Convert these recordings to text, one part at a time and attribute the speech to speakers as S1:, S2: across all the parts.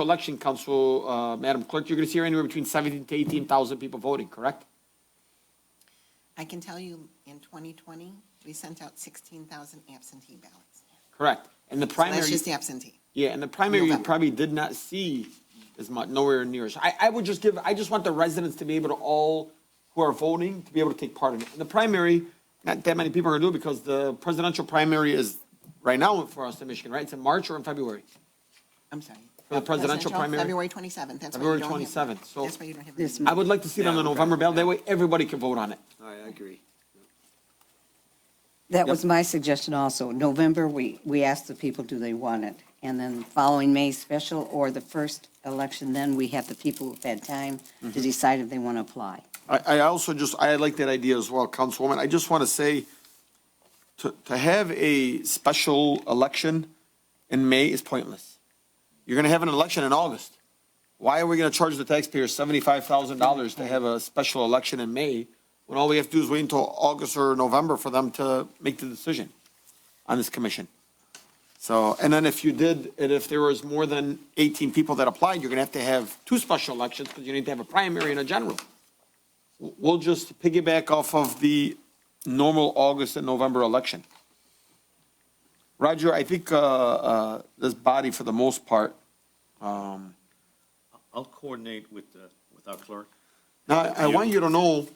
S1: election, Council, uh, Madam Clerk, you're going to see anywhere between 17 to 18,000 people voting, correct?
S2: I can tell you, in 2020, we sent out 16,000 absentee ballots.
S1: Correct. And the
S2: So that's
S1: primary,
S2: just absentee.
S1: yeah, and the primary, you
S2: November.
S1: probably did not see as much, nowhere near. as- I, I would just give, I just want the residents to be able to all, who are voting, to be able to take part in it. In the primary, not that many people are going to do it because the presidential primary is right now for us in Michigan, right? It's in March or in February?
S2: I'm sorry.
S1: For the presidential primary?
S2: February 27th, that's why you
S1: February
S2: don't have.
S1: 27th, so-
S2: That's why you don't have.
S3: This
S2: any.
S1: I would like to see it on the November ballot. That way, everybody can vote on it.
S4: I agree.
S3: That was my suggestion also. November, we, we asked the people, do they want it? And then following May special or the first election, then we have the people who've had time to decide if they want to apply.
S4: I, I also just, I like that idea as well, Councilwoman. I just want to say, to, to have a special election in May is pointless. You're going to have an election in August. Why are we going to charge the taxpayers seventy-five thousand dollars to have a special election in May when all we have to do is wait until August or November for them to make the decision on this commission? So, and then if you did, and if there was more than eighteen people that applied, you're going to have to have two special elections because you need to have a primary and a general. We'll just piggyback off of the normal August and November election. Roger, I think uh, uh, this body, for the most part, um,
S5: I'll coordinate with, the- with our clerk.
S4: now, I I want you to know,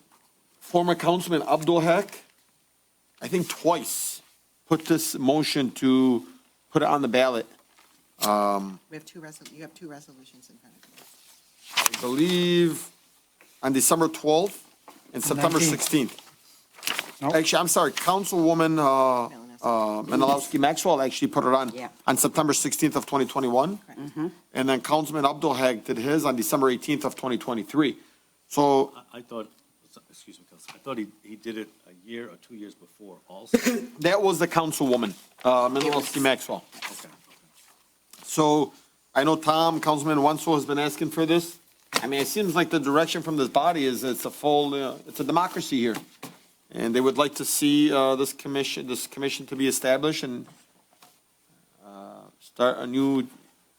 S4: former Councilman Abdul Haq, I think twice, put this motion to put it on the ballot.
S2: We have two resol, you have two resolutions in front of you.
S4: I believe, on December 12th and September 16th. Actually, I'm sorry, Councilwoman uh, uh, Menalowski Maxwell actually put it on,
S3: Yeah.
S4: on September 16th of 2021. And then Councilman Abdul Haq did his on December 18th of 2023. So
S5: I- I thought, excuse me, Council, I thought he, he did it a year or two years before also. Okay,
S4: that was the councilwoman, uh, Menalowski Maxwell.
S5: okay.
S4: So I know Tom, Councilman Wenzel has been asking for this. I mean, it seems like the direction from this body is it's a full, uh, it's a democracy here. And they would like to see uh, this commission, this commission to be established and uh, start a new,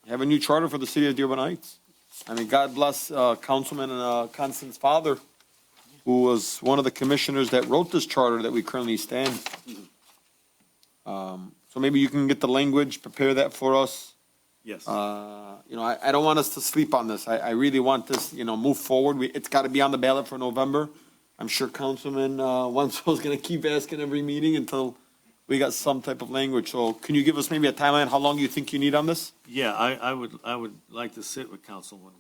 S4: have a new charter for the city of Dearborn Heights. I mean, God bless uh, Councilman uh, Constance's father, who was one of the commissioners that wrote this charter that we currently stand. Um, So maybe you can get the language, prepare that for us.
S5: Yes.
S4: Uh, you know, I, I don't want us to sleep on this. I, I really want this, you know, move forward. We, it's got to be on the ballot for November. I'm sure Councilman, uh, Wenzel's going to keep asking every meeting until we got some type of language. So can you give us maybe a timeline, how long you think you need on this?
S5: Yeah, I, I would, I would like to sit with Councilman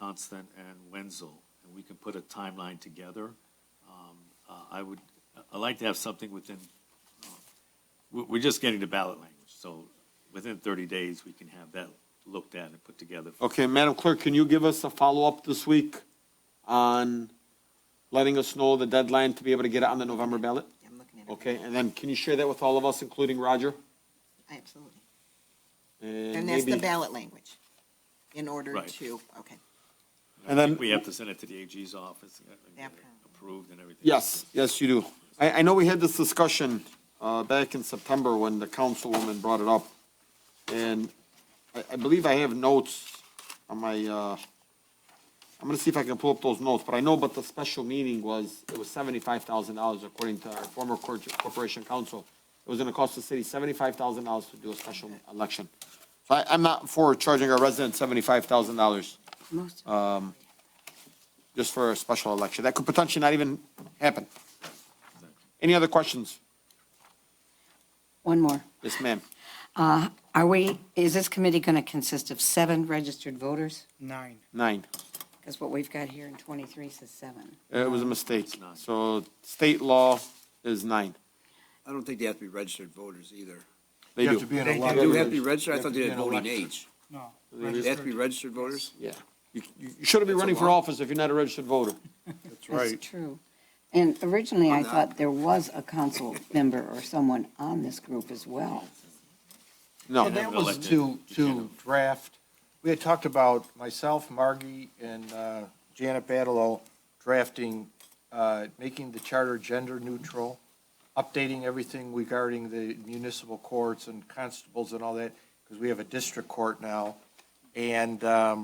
S5: Constant and Wenzel, and we can put a timeline together. Um, uh, I would, i like to have something within, uh, we- we're just getting the ballot language, so within 30 days, we can have that looked at and put together.
S4: Okay, Madam Clerk, can you give us a follow-up this week on letting us know the deadline to be able to get it on the November ballot?
S2: I'm looking at it.
S4: Okay, and then can you share that with all of us, including Roger?
S2: Absolutely.
S4: And
S2: And that's the
S4: maybe,
S2: ballot language in order
S5: Right.
S2: to, okay.
S4: and then,
S5: We have to send it to the AG's office, uh,
S2: Yeah.
S5: approved and everything.
S4: Yes, yes, you do. I, I know we had this discussion uh, back in September when the councilwoman brought it up. And I, I believe I have notes on my, uh, I'm gonna see if I can pull up those notes, but I know but the special meeting was, it was seventy-five thousand dollars according to our former cor- corporation council. It was gonna cost the city seventy-five thousand dollars to do a special election. So I, I'm not for charging our residents seventy-five thousand dollars
S3: Most,
S4: just for a special election. That could potentially not even happen. Any other questions?
S3: one more.
S4: Yes, ma'am.
S3: Are we, is this committee going to consist of seven registered voters?
S6: Nine.
S4: Nine.
S3: Because what we've got here in 23 says seven.
S4: It was a mistake.
S5: nine.
S4: So state law is nine.
S7: I don't think they have to be registered voters either.
S4: They do.
S6: an
S7: They do have to be registered, I thought they had voting age.
S6: No.
S7: They have to be registered voters?
S4: Yeah. You, you you shouldn't be
S7: That's a
S4: running for
S7: lot.
S4: office if you're not a registered voter.
S3: That's true. And originally, I
S7: I'm not.
S3: thought there was a council member or someone on this group as well.
S4: No.
S6: And that
S5: Well,
S6: was
S5: like
S6: to,
S5: the-
S6: to draft, we had talked about myself, Margie, and uh, Janet Badalo drafting, uh, making the charter gender neutral, updating everything regarding the municipal courts and constables and all that, because we have a district court now, And um,